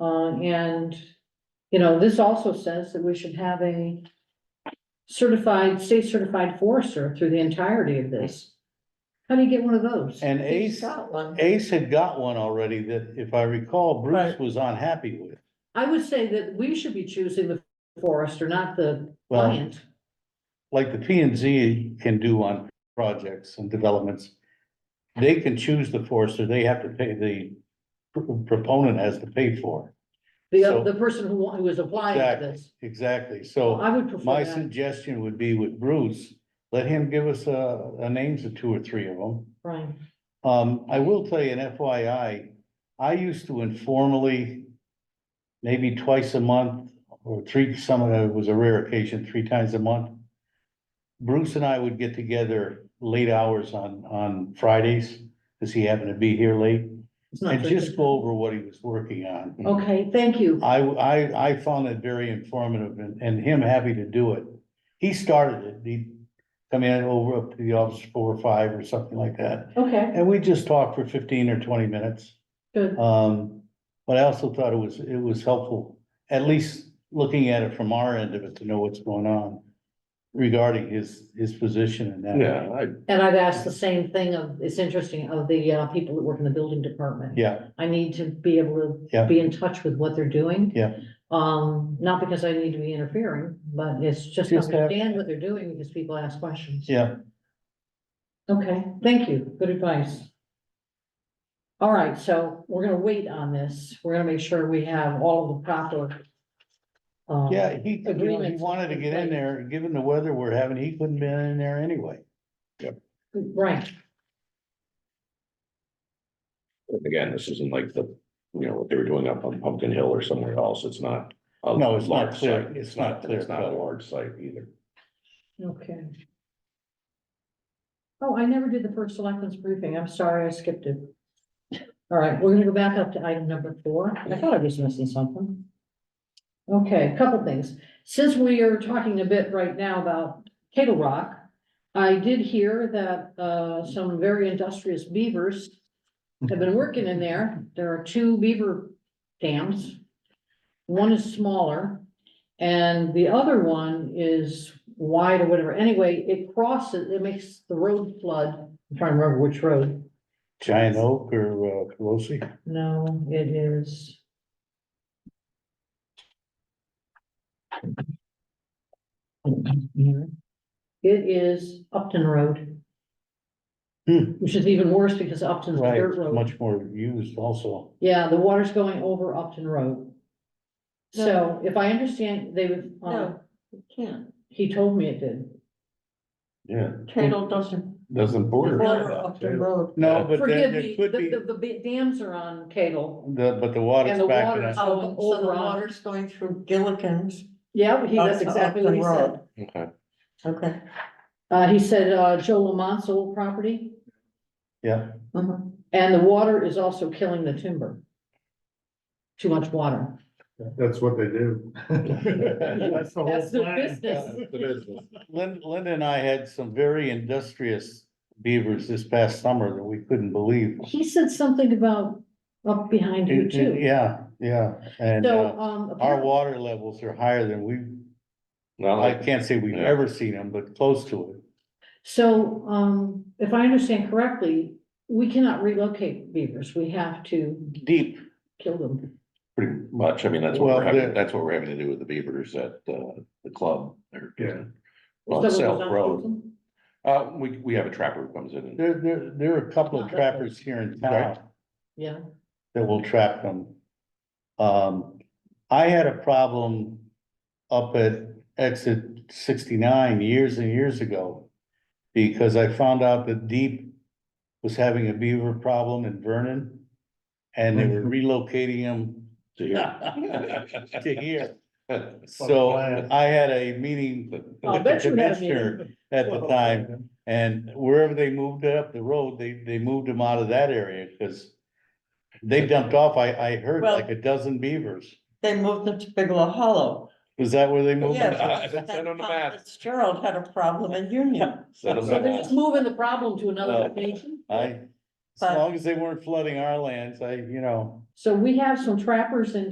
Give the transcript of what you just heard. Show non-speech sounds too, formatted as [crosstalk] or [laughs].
Uh, and, you know, this also says that we should have a certified, state certified forester through the entirety of this. How do you get one of those? And He's Ace, got one. Ace had got one already that, if I recall, Bruce Right. was unhappy with. I would say that we should be choosing the forester, not the Well, client. like the P and Z can do on projects and developments. They can choose the forester, they have to pay, the pr- proponent has to pay for. it. The, so- the person who, wa- who is applying Exactly. for this. Exactly, so I would prefer my that, suggestion would be with Bruce, let him give us a, a names of two or three of them. Brian. Um, I will tell you an FYI, I used to informally, maybe twice a month or three, some of it was a rare occasion, three times a month. Bruce and I would get together late hours on, on Fridays, because he happened to be here late, It's not and drinking. just go over what he was working on. Okay, thank you. I, I, I found it very informative and, and him happy to do it. He started it, he, come in over up to the office four or five or something like that. Okay, And we just talked for fifteen or twenty minutes. good. Um, but I also thought it was, it was helpful, at least looking at it from our end of it to know what's going on regarding his, his position and that. Yeah, I, And I've asked the same thing of, it's interesting, of the uh, people that work in the building department. Yeah, I need to be able to Yeah. be in touch with what they're doing. Yeah. Um, not because I need to be interfering, but it's just to Just have- understand what they're doing because people ask questions. yeah. Okay, thank you. Good advice. All right, so we're gonna wait on this. We're gonna make sure we have all of the proper. um, Yeah, he, you know, he Agreements wanted to in get in place. there, given the weather we're having, he couldn't been in there anyway. Right, and again, this isn't like the, you know, what they were doing up on Pumpkin Hill or somewhere else, it's not. a No, it's not large clear. site. It's not clear It's not a cut. large site either. okay. Oh, I never did the first selectmen's briefing. I'm sorry, I skipped it. All right, we're gonna go back up to item number four. I thought I was missing something. Okay, a couple things. Since we are talking a bit right now about Kettle Rock, I did hear that uh some very industrious beavers have been working in there. There are two beaver dams. One is smaller and the other one is wide or whatever. Anyway, it crosses, it makes the road flood. I'm trying to remember which road. Giant Oak or uh, Pelosi? No, it is. It is Upton Road. Hmm. Which is even worse because Upton's a Right, dirt road. much more used also. Yeah, the water's going over Upton Road. No. So if I understand, they would, uh, No, you can't. he told me it did. Yeah, Kettle doesn't. doesn't border. border Upton Road. No, but there, Forgive there me, could be, the, the, the dams are on Cadle. the, but the And water's the back water's to that. up. Oh, so the water's going through Gilligan's. Yeah, he, that's up to exactly what he Upton said. Road. Okay. Okay. Uh, he said, uh, Joe Lamont's old property, Yeah, Mhm. and the water is also killing the timber. Too much water. That's what they do. [laughs] That's the whole That's their plan. business. Lynn, Linda and I had some very industrious beavers this past summer that we couldn't believe. He said something about up behind you It- too. it- Yeah, yeah, and, uh, So, um, our apparently, water levels are higher than we, Well, I I, can't say we've Yeah. ever seen them, but close to it. so, um, if I understand correctly, we cannot relocate beavers. We have to Deep, kill them. pretty much, I mean, that's what Well, we're having, the- that's what we're having to do with the beavers at, uh, the club. They're- Yeah. On Someone South does not kill Road, them? uh, we, we have a trapper who comes in [laughs] and there, there, there are a couple of Not that trappers here in Right. town. Yeah, that will trap them. Um, I had a problem up at exit sixty-nine years and years ago. Because I found out that Deep was having a beaver problem in Vernon. And they were relocating them to to hear. [laughs] uh, here. So plan. I had a meeting I'll with the bet you had a commissioner at the time. And wherever they moved it up the road, they, they moved them out of that area, cause. They dumped off, I, I heard Well- like a dozen beavers, They moved them to Bigelow Hollow. is that where they moved? them? Yeah. It's on the map. Fitzgerald had a problem in Union. Send them so they're that. just moving the problem to another Well, location. I, as long as they weren't flooding our lands, I, you know. So we have some trappers in